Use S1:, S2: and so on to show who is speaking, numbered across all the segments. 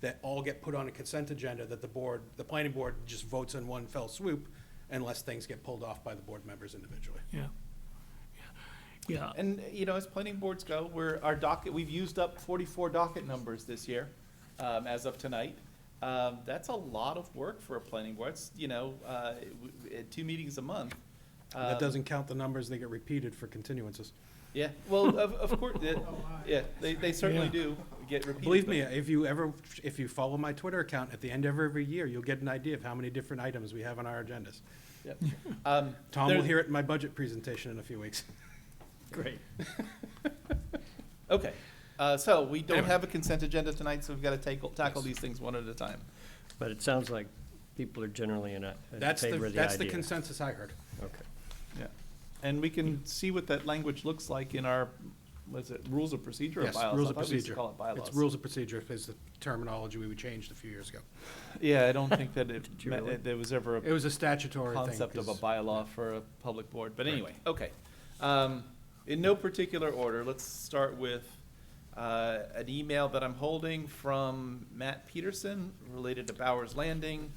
S1: that all get put on a consent agenda that the board, the planning board just votes in one fell swoop unless things get pulled off by the board members individually.
S2: yeah. Yeah,
S3: And, you know, as planning boards go, we're, our docket, we've used up forty-four docket numbers this year, um, as of tonight. Um, that's a lot of work for a planning board, it's, you know, uh, w- w- uh, two meetings a month.
S1: That
S3: Um,
S1: doesn't count the numbers that get repeated for continuances.
S3: Yeah, well, of, of course, yeah, they, they certainly
S2: Yeah.
S3: do get repeated.
S1: Believe
S3: but-
S1: me, if you ever, if you follow my Twitter account, at the end of every year, you'll get an idea of how many different items we have on our agendas.
S3: Yep. Um,
S1: Tom will
S3: there-
S1: hear it in my budget presentation in a few weeks.
S2: great.
S3: Okay, uh, so we don't
S1: Anyway.
S3: have a consent agenda tonight, so we've gotta tackle, tackle these things one at a time.
S4: But it sounds like people are generally in a, in
S1: That's the,
S4: favor of the idea.
S1: that's the consensus I heard.
S4: Okay.
S3: Yeah, and we can see what that language looks like in our, was it rules of procedure or
S1: Yes,
S3: bylaws?
S1: rules
S3: I
S1: of
S3: thought we used to
S1: procedure.
S3: Call it bylaws.
S1: It's rules of procedure is the terminology we changed a few years ago.
S3: Yeah, I don't think that it,
S4: Did you
S3: meant
S4: really?
S3: that there was ever
S1: It
S3: a
S1: was a statutory thing.
S3: concept of a
S1: 'cause-
S3: bylaw for a public board, but anyway, okay. Um, in no particular order, let's start with, uh, an email that I'm holding from Matt Peterson related to Bowers Landing.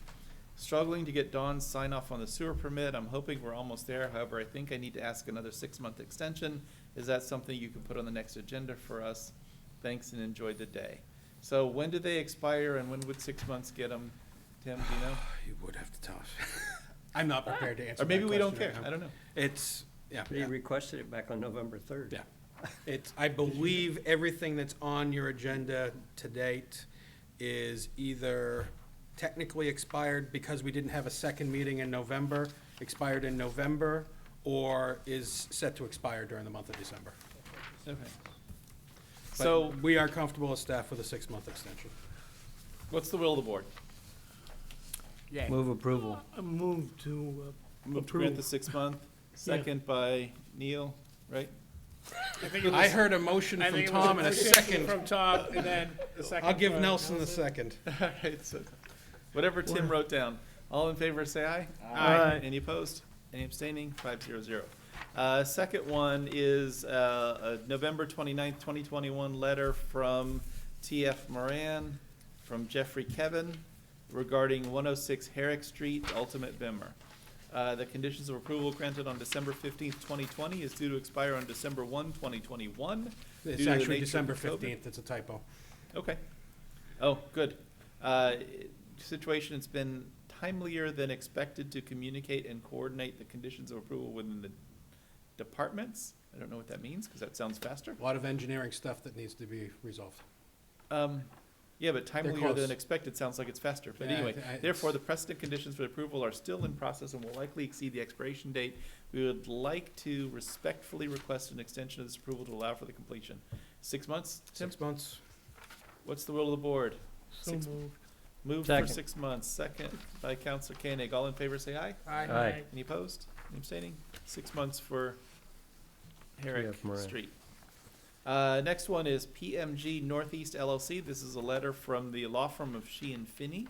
S3: Struggling to get Dawn's sign off on the sewer permit. I'm hoping we're almost there. However, I think I need to ask another six-month extension. Is that something you could put on the next agenda for us? Thanks and enjoy the day. So when do they expire and when would six months get them? Tim, do you know?
S1: You would have to tell us. I'm not prepared to answer
S3: Or maybe
S1: that
S3: we don't
S1: question right
S3: care.
S1: now.
S3: I don't know.
S1: It's, yeah,
S4: They
S1: yeah,
S4: requested it back on November third.
S1: yeah. It's, I believe everything that's on your agenda to date is either technically expired because we didn't have a second meeting in November, expired in November, or is set to expire during the month of December.
S3: Okay.
S1: But
S3: So
S1: We are comfortable as staff with a six-month extension.
S3: what's the will of the board?
S4: Move approval.
S2: I move to uh,
S3: Move to grant the
S2: approve.
S3: six-month, second by Neil, right?
S1: I heard a motion from Tom and a second.
S5: From Tom, and then the second.
S1: I'll give
S5: from-
S1: Nelson the second.
S3: All right, so whatever Tim wrote down. All in favor, say aye.
S2: Aye.
S3: Any opposed? Any abstaining? Five zero zero. Uh, second one is, uh, a November twenty-ninth, twenty twenty-one letter from TF Moran, from Jeffrey Kevin regarding one oh six Herrick Street, ultimate Bimmer. Uh, the conditions of approval granted on December fifteenth, twenty twenty is due to expire on December one, twenty twenty-one.
S1: It's actually December fifteenth, it's a typo.
S3: Okay. Oh, good. Uh, Situation, it's been timelier than expected to communicate and coordinate the conditions of approval within the departments. I don't know what that means, because that sounds faster.
S1: A lot of engineering stuff that needs to be resolved.
S3: Um, Yeah, but timelier
S1: close.
S3: than expected sounds like it's faster. But
S1: Yeah, I
S3: anyway,
S1: th- I-
S3: therefore, the precedent conditions for approval are still in process and will likely exceed the expiration date. We would like to respectfully request an extension of this approval to allow for the completion. Six months, Tim?
S1: Six months,
S3: What's the will of the board?
S2: So
S3: Six-
S2: moved.
S3: Move for
S4: Second.
S3: six months, second by Counselor Koenig. All in favor, say aye.
S4: Aye.
S3: Any opposed? Any abstaining? Six months for Herrick
S4: TF Moran.
S3: Street. Uh, next one is PMG Northeast LLC. This is a letter from the law firm of She and Finney,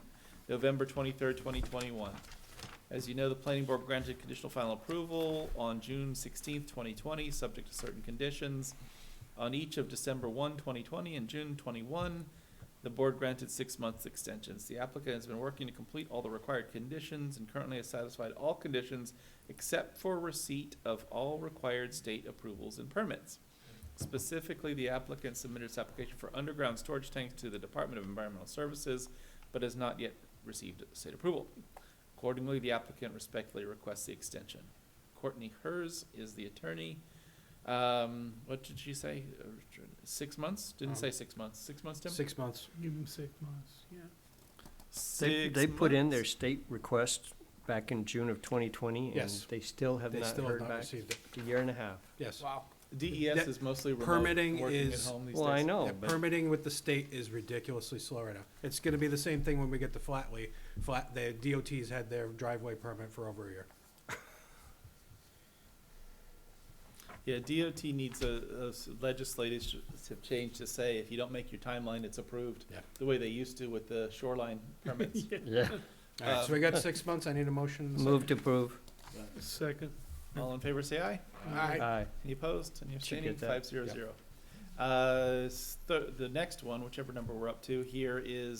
S3: November twenty-third, twenty twenty-one. As you know, the planning board granted conditional final approval on June sixteenth, twenty twenty, subject to certain conditions. On each of December 1, 2020, and June twenty-one, the board granted six months extensions. The applicant has been working to complete all the required conditions and currently has satisfied all conditions except for receipt of all required state approvals and permits. Specifically, the applicant submitted its application for underground storage tanks to the Department of Environmental Services, but has not yet received state approval. Accordingly, the applicant respectfully requests the extension. Courtney Hers is the attorney. Um, what did she say? Uh, Six months? Didn't say six months. Six months, Tim?
S1: six months.
S2: Give him six months, yeah.
S4: They,
S3: Six
S4: they put in their
S3: months.
S4: state request back in June of twenty twenty.
S1: Yes.
S4: And they still have
S1: They
S4: not
S1: still
S4: heard
S1: have not
S4: back.
S1: received it,
S4: A year and a half.
S1: yes.
S5: Wow.
S3: DES
S1: That-
S3: E is mostly remote,
S1: permitting
S3: working at
S1: is-
S3: home these
S4: Well, I
S3: days.
S4: know,
S1: Yeah,
S4: but
S1: Permitting with the state is ridiculously slow right now. It's gonna be the same thing when we get to Flatley. Flat, the DOT's had their driveway permit for over a year.
S3: Yeah, DOT needs a, a s- legislative sh- change to say, if you don't make your timeline, it's approved.
S1: Yeah.
S3: The way they used to with the shoreline permits.
S4: yeah,
S1: All right, so we got six months, I need a motion. and a
S4: move to approve.
S2: Second.
S3: All in favor, say aye.
S5: Aye.
S4: Aye.
S3: Any opposed? Any
S4: Should
S3: abstaining?
S4: get that.
S3: Five zero zero. Uh, s- the, the next one, whichever number we're up to here, is